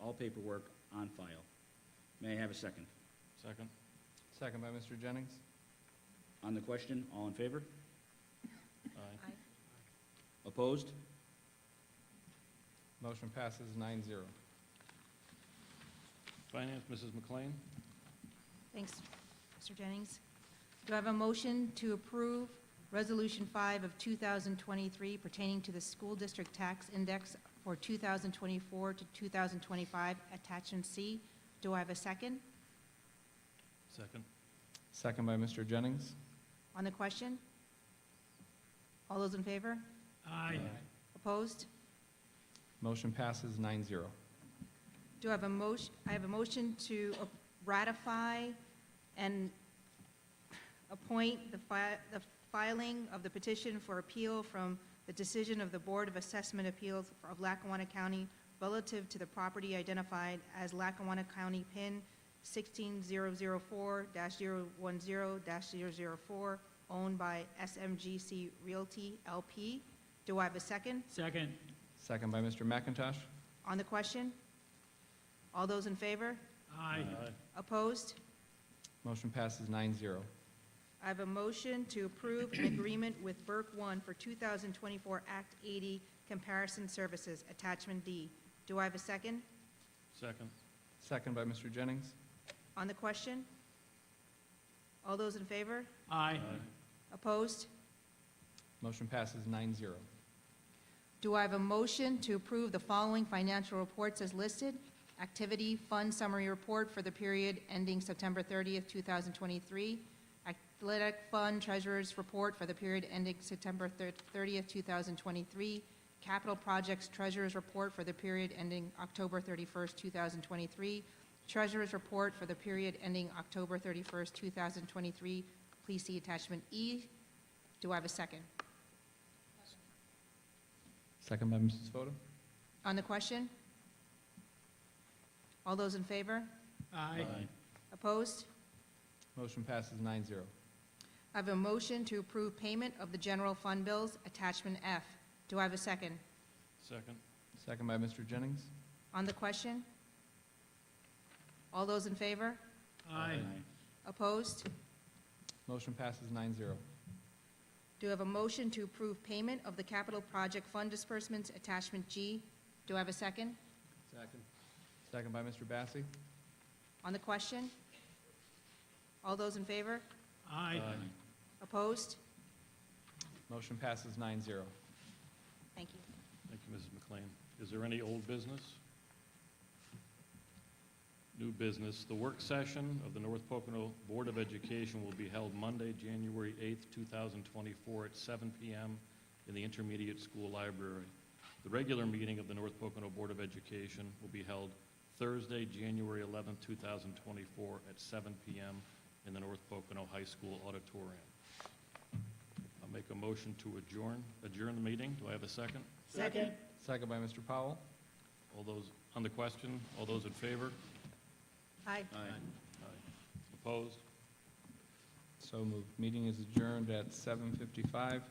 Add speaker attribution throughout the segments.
Speaker 1: all paperwork on file. May I have a second?
Speaker 2: Second.
Speaker 3: Second by Mr. Jennings.
Speaker 1: On the question, all in favor?
Speaker 2: Aye.
Speaker 4: Aye.
Speaker 1: Opposed?
Speaker 3: Motion passes nine zero.
Speaker 2: Finance, Mrs. McLean.
Speaker 4: Thanks, Mr. Jennings. Do I have a motion to approve Resolution 5 of 2023 pertaining to the school district tax index for 2024 to 2025, attachment C? Do I have a second?
Speaker 2: Second.
Speaker 3: Second by Mr. Jennings.
Speaker 4: On the question? All those in favor?
Speaker 2: Aye.
Speaker 4: Opposed?
Speaker 3: Motion passes nine zero.
Speaker 4: Do I have a motion, I have a motion to ratify and appoint the fi, the filing of the petition for appeal from the decision of the Board of Assessment Appeals of Lackawanna County relative to the property identified as Lackawanna County PIN sixteen zero zero four 10 4 owned by SMGC Realty LP. Do I have a second
Speaker 5: Second.
Speaker 3: Second by Mr. McIntosh.
Speaker 4: on the question? All those in favor?
Speaker 5: Aye.
Speaker 4: Opposed?
Speaker 3: Motion passes nine zero.
Speaker 4: I have a motion to approve an agreement with Burke One for 2024 Act 80 Comparison Services, Attachment D. Do I have a second
Speaker 2: Second.
Speaker 3: Second by Mr. Jennings.
Speaker 4: on the question? All those in favor?
Speaker 5: Aye.
Speaker 4: Opposed?
Speaker 3: Motion passes nine zero.
Speaker 4: Do I have a motion to approve the following financial reports as listed? Activity Fund Summary Report for the period ending September 30th, 2023. Athletic Fund Treasurer's Report for the period ending September thir- 30th, 2023. Capital Projects Treasurer's Report for the period ending October 31st, 2023. Treasurer's Report for the period ending October 31st, 2023. Please see attachment E. Do I have a second?
Speaker 3: Second by Mrs. Fota.
Speaker 4: On the question? All those in favor?
Speaker 5: Aye.
Speaker 4: Opposed?
Speaker 3: Motion passes nine zero.
Speaker 4: I have a motion to approve payment of the general fund bills, attachment F. Do I have a second?
Speaker 2: Second.
Speaker 3: Second by Mr. Jennings.
Speaker 4: On the question? All those in favor?
Speaker 5: Aye.
Speaker 4: Opposed?
Speaker 3: Motion passes nine zero.
Speaker 4: Do I have a motion to approve payment of the capital project fund disbursements, attachment G? Do I have a second?
Speaker 3: Second. Second by Mr. Bassi.
Speaker 4: On the question? All those in favor?
Speaker 5: Aye.
Speaker 4: Opposed?
Speaker 3: Motion passes nine zero.
Speaker 4: Thank you.
Speaker 2: Thank you, Mrs. McLean. Is there any old business? New business, the work session of the North Pocono Board of Education will be held Monday, January 8th, 2024, at 7 PM in the Intermediate School Library. The regular meeting of the North Pocono Board of Education will be held Thursday, January 11th, 2024, at 7 PM in the North Pocono High School Auditorium. I'll make a motion to adjourn, adjourn the meeting. Do I have a second?
Speaker 5: Second.
Speaker 3: Second by Mr. Powell.
Speaker 2: All those, on the question, all those in favor?
Speaker 4: Aye.
Speaker 1: Aye.
Speaker 2: Opposed?
Speaker 3: So moved. Meeting is adjourned at 7:55.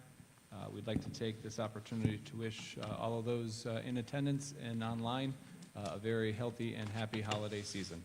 Speaker 3: Uh, We'd like to take this opportunity to wish uh, all of those uh, in attendance and online uh, a very healthy and happy holiday season.